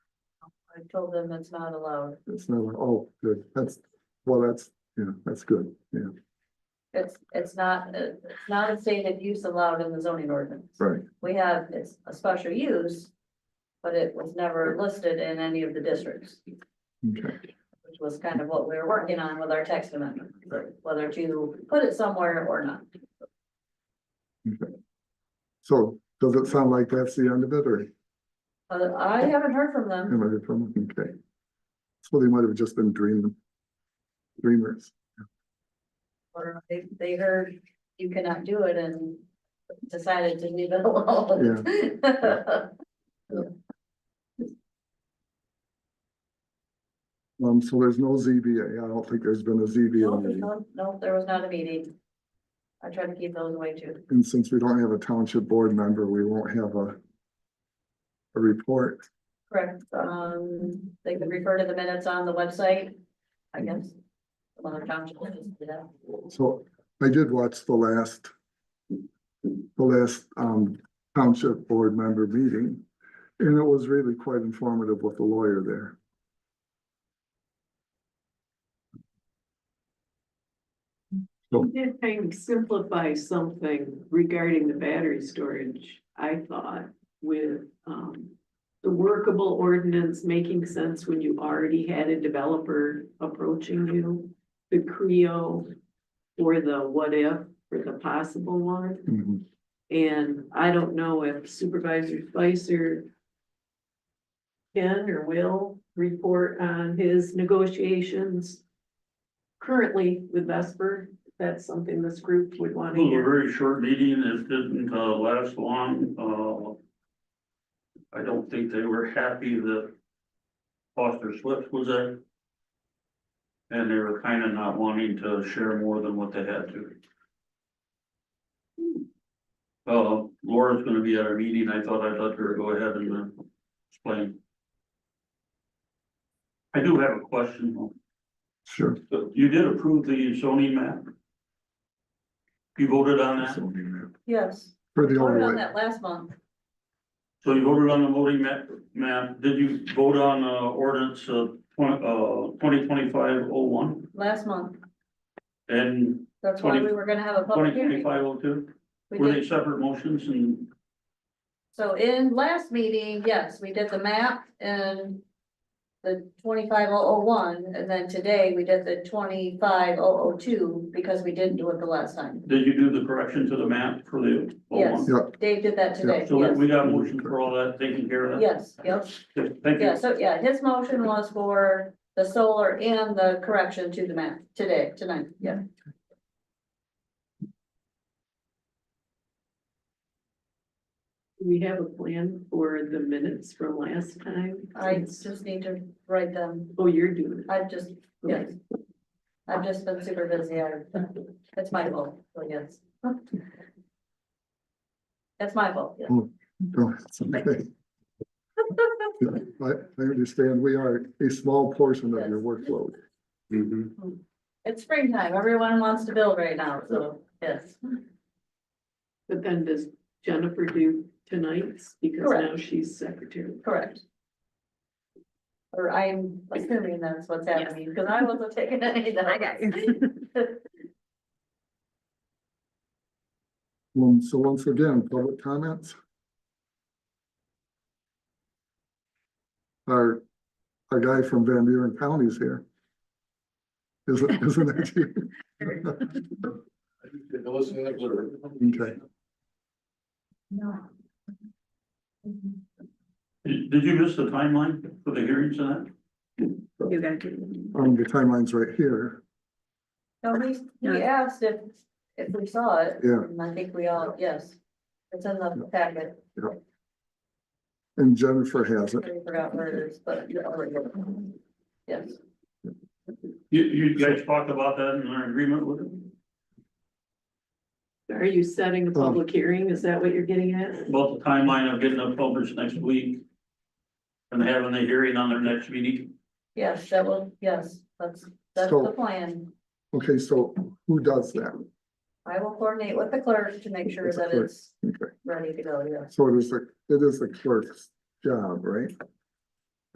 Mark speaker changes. Speaker 1: I told them it's not allowed.
Speaker 2: It's not, oh, good, that's, well, that's, yeah, that's good, yeah,
Speaker 1: It's, it's not, uh, it's not a stated use allowed in the zoning ordinance.
Speaker 2: right,
Speaker 1: We have, it's a special use, but it was never listed in any of the districts,
Speaker 2: okay.
Speaker 1: which was kind of what we were working on with our text amendment, whether to put it somewhere or not.
Speaker 2: So does it sound like that's the end of it or
Speaker 1: But I haven't heard from them.
Speaker 2: am I from, okay? So they might have just been dreaming. Dreamers,
Speaker 1: Or they, they heard you cannot do it and decided to leave it alone.
Speaker 2: um, so there's no ZBA, I don't think there's been a
Speaker 1: No,
Speaker 2: ZBA,
Speaker 1: there's
Speaker 2: meeting.
Speaker 1: no- no, there was not a meeting. I try to keep those away too.
Speaker 2: and since we don't have a township board member, we won't have a. A report,
Speaker 1: Correct, um, they can refer to the minutes on the website, I guess. Well, the township office did that.
Speaker 2: so I did watch the last. The last, um, township board member meeting, and it was really quite informative with the lawyer there.
Speaker 3: You did kind of simplify something regarding the battery storage, I thought, with, um, the workable ordinance making sense when you already had a developer approaching you, the Creo or the what if, or the possible one.
Speaker 2: Mhm.
Speaker 3: And I don't know if Supervisor Spicer can or will report on his negotiations currently with Vesper. If That's something this group would want
Speaker 4: It
Speaker 3: to
Speaker 4: was a
Speaker 3: hear.
Speaker 4: very short meeting, it didn't uh last long, uh. I don't think they were happy that Foster Swift was there. And they were kind of not wanting to share more than what they had to. Uh, Laura's gonna be at our meeting, I thought I'd let her go ahead and uh, explain. I do have a question, though.
Speaker 2: Sure.
Speaker 4: So you did approve the zoning map? You voted on that?
Speaker 2: Zoning map.
Speaker 1: Yes,
Speaker 2: For the
Speaker 1: voted on
Speaker 2: overlay,
Speaker 1: that last month.
Speaker 4: So you voted on the voting map, map, did you vote on, uh, ordinance, uh, twenty, uh, twenty twenty-five oh one?
Speaker 1: Last month.
Speaker 4: And
Speaker 1: That's why we
Speaker 4: Twenty-
Speaker 1: were gonna have a public
Speaker 4: twenty
Speaker 1: hearing.
Speaker 4: twenty-five oh two,
Speaker 1: We
Speaker 4: were
Speaker 1: did.
Speaker 4: they separate motions and,
Speaker 1: So in last meeting, yes, we did the map and the twenty-five oh oh one, and then today we did the twenty-five oh oh two, because we didn't do it the last time.
Speaker 4: did you do the correction to the map for the?
Speaker 1: Yes.
Speaker 4: 01?
Speaker 1: Dave did that today,
Speaker 4: So that
Speaker 1: yes,
Speaker 4: we got a motion for all that, taken care of that?
Speaker 1: yes, yep,
Speaker 4: Good, Thank you.
Speaker 1: yeah, so, yeah, his motion was for the solar and the correction to the map today, tonight, yeah.
Speaker 3: Do We have a plan for the minutes from last time.
Speaker 1: I just need to write them,
Speaker 3: Oh, you're doing it.
Speaker 1: I've just, yes, I've just been super busy, I, it's my fault, so yes. That's my fault, yes.
Speaker 2: no, it's okay. Yeah, I, I understand, we are a small portion of your workload.
Speaker 1: It's springtime, everyone wants to build right now, so, yes,
Speaker 3: But then does Jennifer do tonight's? Because now
Speaker 1: Correct.
Speaker 3: she's secretary.
Speaker 1: correct. Or I'm assuming that's what's happening, because I wasn't taking any that I got.
Speaker 2: Um, so once again, public comments? Our, our guy from Van Buren County is here. Isn't, isn't that you?
Speaker 5: Listen and observe.
Speaker 2: Okay,
Speaker 4: Did did you miss the timeline for the hearings on that?
Speaker 3: You gotta do.
Speaker 2: um, the timeline's right here,
Speaker 1: No, we, we asked if, if we saw it,
Speaker 2: yeah,
Speaker 1: and I think we all, yes, it's in the packet,
Speaker 2: and Jennifer has it.
Speaker 1: I forgot where it is, but. you already got it. Yes,
Speaker 4: You, you guys talked about that and are in agreement with it,
Speaker 3: Are you setting a public hearing? Is that what you're getting at?
Speaker 4: about the timeline of getting it published next week? And having the hearing on their next meeting?
Speaker 1: yes, that will, yes, that's, that's the
Speaker 2: So-
Speaker 1: plan.
Speaker 2: Okay, so who does that?
Speaker 1: I will coordinate with the clerk to make sure
Speaker 2: With the
Speaker 1: that
Speaker 2: clerk.
Speaker 1: it's
Speaker 2: Okay,
Speaker 1: ready to go, yes.
Speaker 2: so it is the, it is the clerk's job, right?